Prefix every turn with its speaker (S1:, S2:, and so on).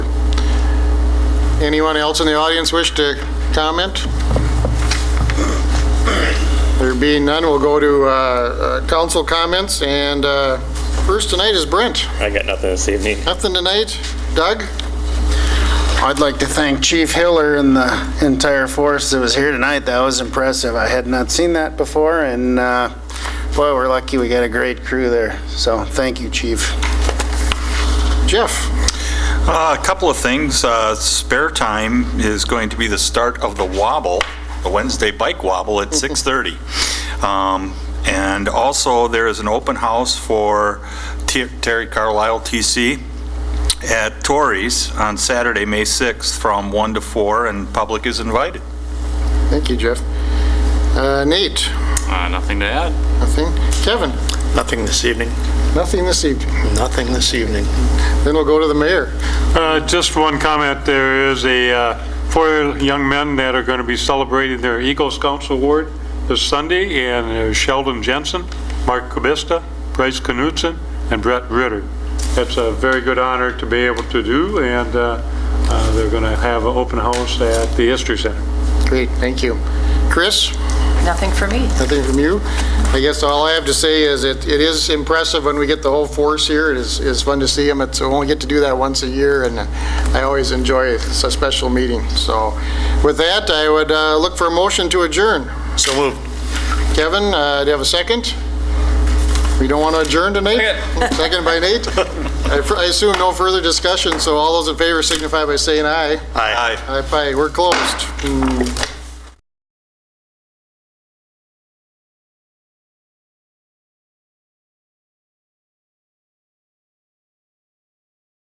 S1: Anyone else in the audience wish to comment? There being none, we'll go to uh, uh, council comments, and uh, first tonight is Brent.
S2: I got nothing this evening.
S1: Nothing tonight? Doug?
S3: I'd like to thank Chief Hiller and the entire force that was here tonight. That was impressive. I had not seen that before, and uh, boy, we're lucky we got a great crew there. So thank you, Chief.
S1: Jeff?
S4: Uh, A couple of things. Uh, Spare time is going to be the start of the wobble, the Wednesday bike wobble at 6:30. Um, And also, there is an open house for T- Terry Carlisle TC at Torrey's on Saturday, May 6th, from 1 to 4, and public is invited.
S1: Thank you, Jeff. Uh, Nate?
S5: Uh, nothing to add.
S1: Nothing? Kevin?
S6: Nothing this evening.
S1: Nothing this evening.
S6: Nothing this evening.
S1: Then we'll go to the mayor.
S7: Uh, Just one comment, there is a, uh, four young men that are going to be celebrating their Eagle Scouts Award this Sunday, and uh, Sheldon Jensen, Mark Kubista, Bryce Knutson, and Brett Ritter. That's a very good honor to be able to do, and uh, uh, they're going to have an open house at the History Center.
S1: Great, thank you. Chris?
S8: Nothing for me.
S1: Nothing from you? I guess all I have to say is it, it is impressive when we get the whole force here. It is, it's fun to see them. It's, we only get to do that once a year, and I always enjoy it. It's a special meeting. So with that, I would uh, look for a motion to adjourn.
S6: So moved.
S1: Kevin, uh, do you have a second? We don't want to adjourn tonight? Second by Nate? I fr- I assume no further discussion, so all those in favor signify by saying aye.
S6: Aye.
S1: Aye, aye. We're closed. Mm.